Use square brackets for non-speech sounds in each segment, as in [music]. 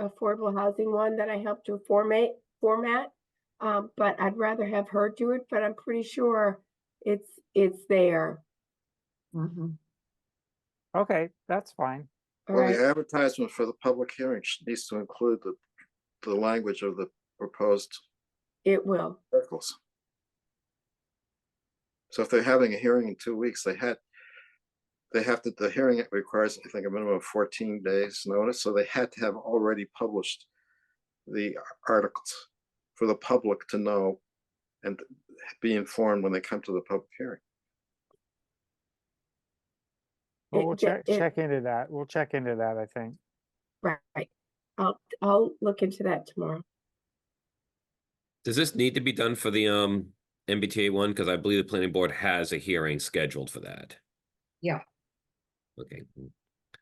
affordable housing one that I helped to formate, format. Um, but I'd rather have her do it, but I'm pretty sure it's, it's there. Mhm. Okay, that's fine. All Well, right, the advertisement for the public hearing sh- needs to include the, the language of the proposed it will. articles. So if they're having a hearing in two weeks, they had, they have to, the hearing requires, I think, a minimum of fourteen days notice, so they had to have already published the articles for the public to know and be informed when they come to the public hearing. It- Well, we'll ju- check, it- check into that. We'll check into that, I think. Right. I'll, I'll look into that tomorrow. Does this need to be done for the um MBTA one? Because I believe the planning board has a hearing scheduled for that. Yeah. Okay.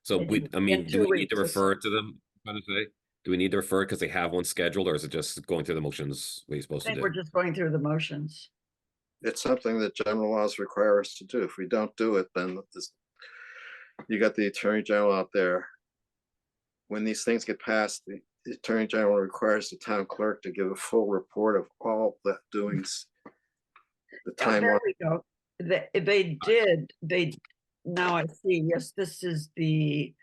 So In we, two- I in mean, do two we need to weeks, it's- refer to them? kind of say? Do we need to refer because they have one scheduled or is it just going through the motions we're I supposed to think we're do? just going through the motions. It's something that general laws require us to do. If we don't do it, then this, you got the attorney general out there. When these things get passed, the the attorney general requires the town clerk to give a full report of all the doings. The Oh, timeline, There we go. They, they did, they, now I see, yes, this is the,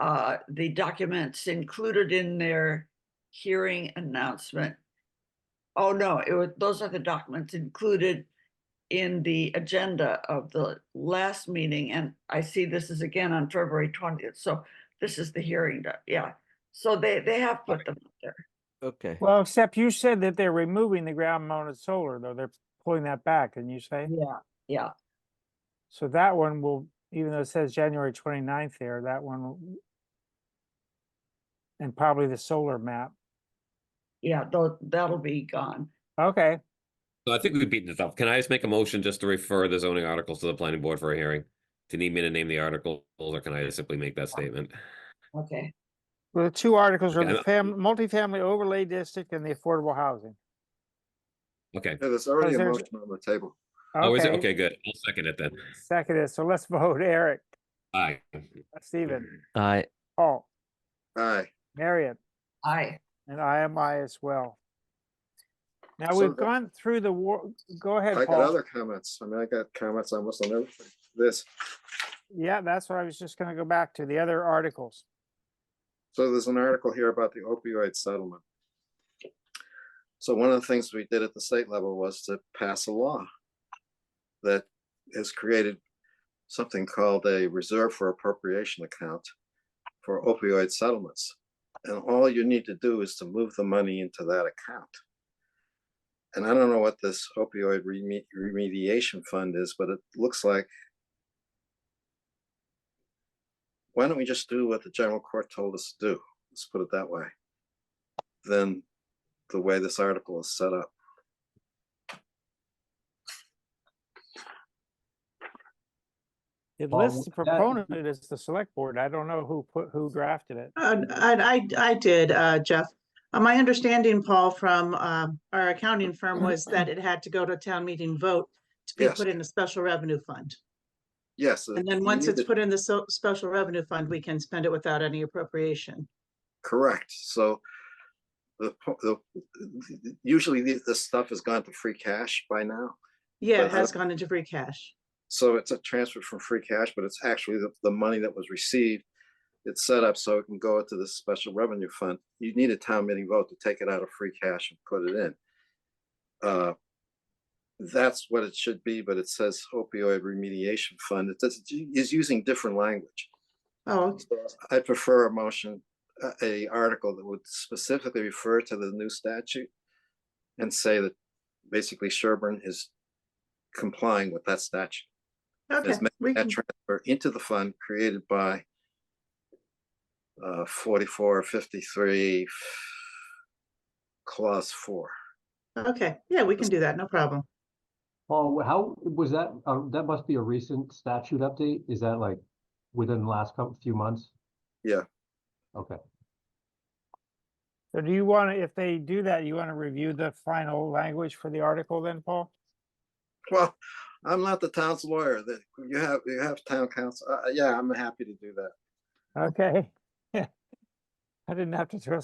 uh, the documents included in their hearing announcement. Oh, no, it was, those are the documents included in the agenda of the last meeting, and I see this is again on February twentieth, so this is the hearing, doc- yeah. So they, they have put them up there. Okay. Well, except you said that they're removing the ground mounted solar, though. They're pulling that back, and you say? Yeah. Yeah, So that one will, even though it says January 29th there, that one. will- And probably the solar map. yeah, though, that'll be gone. Okay, So I think we beat this up. Can I just make a motion just to refer the zoning articles to the planning board for a hearing? Do you need me to name the articles or can I just simply make that statement? Okay, well, the two articles are Okay, the fam, multifamily overlay district and the affordable housing. Okay. Yeah, there's already a there's- motion on the table. Oh, is it? Okay, good. I'll second it then. Second is, so let's [laughs] vote Eric, Aye. Stephen, Mm-hmm. I Paul, Aye. Marion. I, And I am I as well. Now, So we've the- gone through the war, go I ahead, got Paul. other comments. I mean, I got comments almost on everything. This, Yeah, that's what I was just gonna go back to, the other articles. So there's an article here about the opioid settlement. So one of the things we did at the state level was to pass a law that has created something called a reserve for appropriation account for opioid settlements. And all you need to do is to move the money into that account. And I don't know what this opioid reme- remediation fund is, but it looks like why don't we just do what the general court told us to do? Let's put it that way. Then the way this article is set up. It Well, lists the that- proponent as the select board. I don't know who put, who drafted it. Uh, I, I, I did, uh, Jeff. Uh, My understanding, Paul, from, um, our accounting firm was that it had to go to town meeting vote to be Yes. put in a special revenue fund. Yes. uh, And then you once need it's to- put in the so- special revenue fund, we can spend it without any appropriation. Correct. So the, po- the, usually the- this stuff has gone to free cash by now. Yeah, it But uh, I- has gone into free cash. So it's a transfer from free cash, but it's actually the, the money that was received. It's set up so it can go into this special revenue fund. You need a town meeting vote to take it out of free cash and put it in. Uh, That's what it should be, but it says opioid remediation fund. It does, is using different language. Oh, I prefer a motion, a- a article that would specifically refer to the new statute and say that basically Sherburne is complying with that statute okay. is ma- We that can, transfer into the fund created by uh, forty-four, fifty-three, clause four. okay, yeah, we can do that, no problem. Oh, how was that? Uh, that must be a recent statute update. Is that like within the last couple few months? Yeah. Okay. So do you wanna, if they do that, you wanna review the final language for the article then, Paul? Well, I'm not the town's lawyer. That you have, you have town council. Uh, yeah, I'm happy to do that. Okay. [laughs] I didn't have to do a